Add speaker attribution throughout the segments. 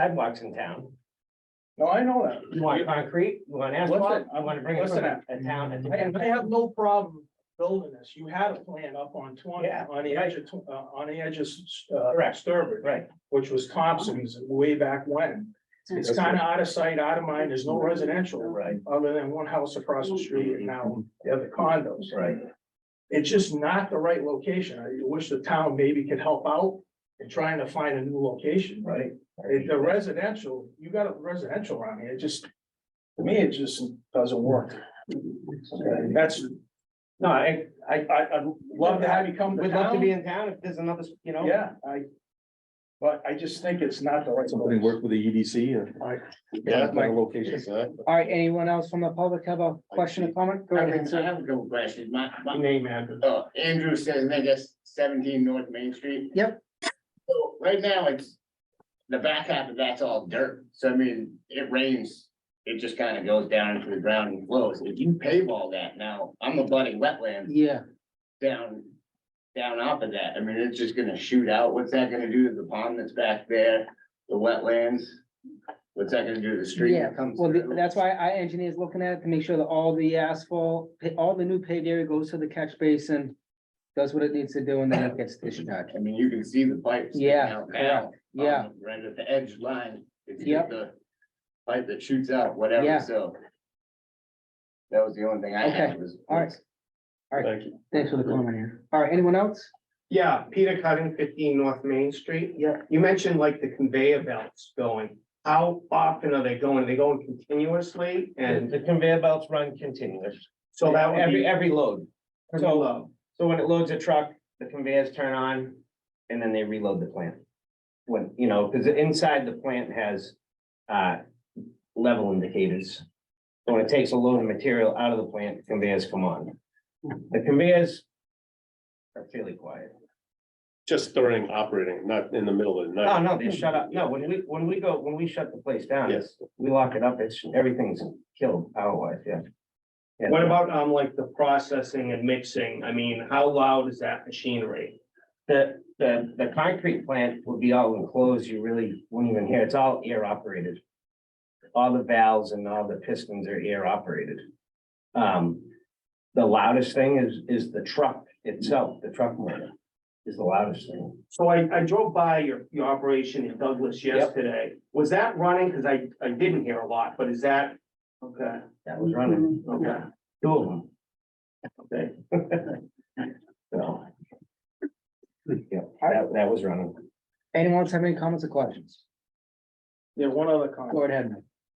Speaker 1: sidewalks in town.
Speaker 2: No, I know
Speaker 1: You want
Speaker 2: that.
Speaker 1: concrete, you want asphalt,
Speaker 2: Listen,
Speaker 1: I want to bring it
Speaker 2: listen
Speaker 1: from a a town. a
Speaker 2: I,
Speaker 1: different-
Speaker 2: I have no problem building this. You had a plan up on twenty,
Speaker 1: Yeah,
Speaker 2: on the edge of, tw- uh, on the edge of, S- uh,
Speaker 1: Correct.
Speaker 2: Sturbridge,
Speaker 1: Right,
Speaker 2: which was Thompson's way back when. It's
Speaker 1: That's
Speaker 2: kind of out of sight, out of mind. There's no residential
Speaker 1: right,
Speaker 2: other than one house across the street and now the other condos.
Speaker 1: right.
Speaker 2: It's just not the right location. I wish the town maybe could help out in trying to find a new location.
Speaker 1: Right.
Speaker 2: It- The residential, you got a residential around here, it just, to me, it just doesn't work. That's,
Speaker 1: No, I, I,
Speaker 2: I, I'd love to have you come to
Speaker 1: would love to be
Speaker 2: town.
Speaker 1: in town if there's another, you know.
Speaker 2: Yeah, I, but I just think it's not the right.
Speaker 3: Something work with the E EDC or.
Speaker 4: Yeah.
Speaker 3: Better Locations, huh?
Speaker 5: All right, anyone else from the public have a question or comment? Go
Speaker 4: I
Speaker 5: ahead.
Speaker 4: have I have a couple questions. My, my,
Speaker 1: Name Andrew.
Speaker 4: uh, Andrew says, I guess seventeen North Main Street.
Speaker 5: Yep.
Speaker 4: So right now, it's, the back half of that's all dirt. So I mean, it rains, it just kind of goes down into the ground and flows. If you pave all that now, I'm a budding wetland
Speaker 5: Yeah,
Speaker 4: down, down off of that. I mean, it's just gonna shoot out. What's that gonna do to the pond that's back there, the wetlands? What's that gonna do to the stream
Speaker 5: yeah.
Speaker 4: that comes
Speaker 5: Well, th-
Speaker 4: through?
Speaker 5: that's why I engineers looking at it to make sure that all the asphalt, pa- all the new paved area goes to the catch basin. Does what it needs to do and then it gets discharged.
Speaker 4: I mean, you can see the pipes. sticking
Speaker 5: Yeah,
Speaker 4: out now. on
Speaker 5: Yeah,
Speaker 4: the- Right at the edge line. It's just
Speaker 5: Yep.
Speaker 4: the pipe that shoots out, whatever,
Speaker 5: Yeah.
Speaker 4: so. That was the only thing I
Speaker 5: Okay,
Speaker 4: had was.
Speaker 5: all right.
Speaker 3: Thank you.
Speaker 5: Thanks for the comment here. All right, anyone else?
Speaker 1: Yeah, Peter Cutting, fifteen North Main Street.
Speaker 5: Yeah.
Speaker 1: You mentioned like the conveyor belts going. How often are they going? Are they going continuously and? The conveyor belts run continuous. So that would Every, every load. So, so when it loads a truck, the conveyors turn on and then they reload the plant. When, you know, because inside the plant has, uh, level indicators. So When it takes a load of material out of the plant, conveyors come on. The conveyors are fairly quiet.
Speaker 3: Just during operating, not in the middle of the
Speaker 1: No,
Speaker 3: night.
Speaker 1: Oh, no, they shut up. No, when we, when we go, when we shut the place down,
Speaker 3: Yes.
Speaker 1: we lock it up, it's, everything's killed hour-wise, yeah. Yeah.
Speaker 6: What about um like the processing and mixing? I mean, how loud is that machinery?
Speaker 1: The, the, the concrete plant would be all enclosed, you really wouldn't even hear, it's all air operated. All the valves and all the pistons are air operated. Um, the loudest thing is, is the truck itself, the truck motor is the loudest thing.
Speaker 6: So I I drove by your your operation in Douglas yesterday. Was that running? Cause I I didn't hear a lot, but is that? Okay,
Speaker 1: That was running,
Speaker 6: okay.
Speaker 1: two of them. Okay. So. Yeah, that, that was running.
Speaker 5: Anyone else have any comments or questions?
Speaker 2: Yeah, one other
Speaker 5: Go
Speaker 2: comment.
Speaker 5: ahead.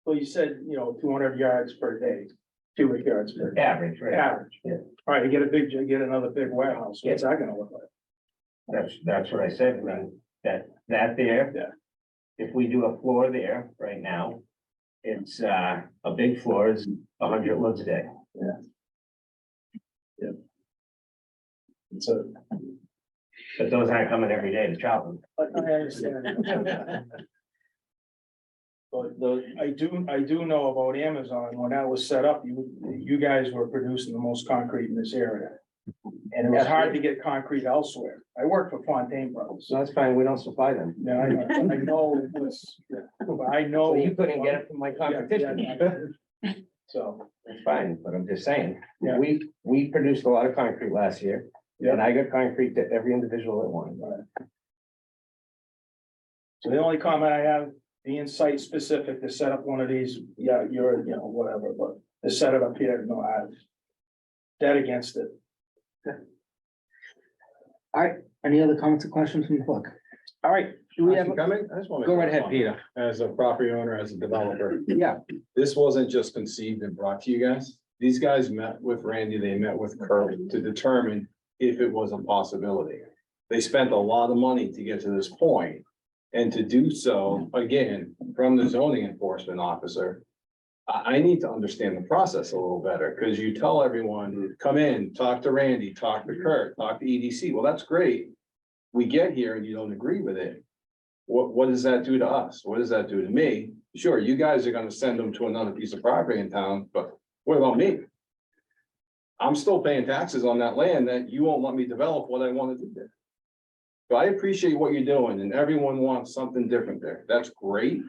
Speaker 2: Well, you said, you know, two hundred yards per day, two hundred yards per day,
Speaker 1: Average, right?
Speaker 2: average.
Speaker 1: Yeah.
Speaker 2: All right, you get a big, you get another big warehouse. What's that gonna look like?
Speaker 1: That's, that's what I said, I mean, that, that there.
Speaker 2: Yeah.
Speaker 1: If we do a floor there right now, it's, uh, a big floor is a hundred loads a day.
Speaker 2: It's a.
Speaker 1: But those aren't coming every day to chop them.
Speaker 2: I I understand. But the, I do, I do know about Amazon, when that was set up, you, you guys were producing the most concrete in this area. And it was hard to get concrete elsewhere, I worked for Fontaine Brothers,
Speaker 1: that's fine, we don't supply them.
Speaker 2: yeah, I know, I know it was, but I
Speaker 1: So
Speaker 2: know.
Speaker 1: you couldn't get it from my competition.
Speaker 2: So,
Speaker 1: It's fine, but I'm just saying,
Speaker 2: Yeah.
Speaker 1: we, we produced a lot of concrete last year.
Speaker 2: Yeah.
Speaker 1: And I got concrete to every individual that wanted.
Speaker 2: so the only comment I have, the insight specific to set up one of these, yeah, you're, you know, whatever, but to set it up here, no, I. Dead against it.
Speaker 5: Any other comments or questions from the public? All right, do we have,
Speaker 7: Coming, I just want to.
Speaker 5: go right ahead, Peter.
Speaker 7: As a property owner, as a developer,
Speaker 5: Yeah,
Speaker 7: this wasn't just conceived and brought to you guys. These guys met with Randy, they met with Kurt to determine if it was a possibility. They spent a lot of money to get to this point, And to do so, again, from the zoning enforcement officer. I, I need to understand the process a little better, because you tell everyone, come in, talk to Randy, talk to Kurt, talk to EDC. Well, that's great. We get here and you don't agree with it. What, what does that do to us? What does that do to me? Sure, you guys are gonna send them to another piece of property in town, but what about me? I'm still paying taxes on that land that you won't let me develop what I wanna do there. So I appreciate what you're doing and everyone wants something different there. That's great.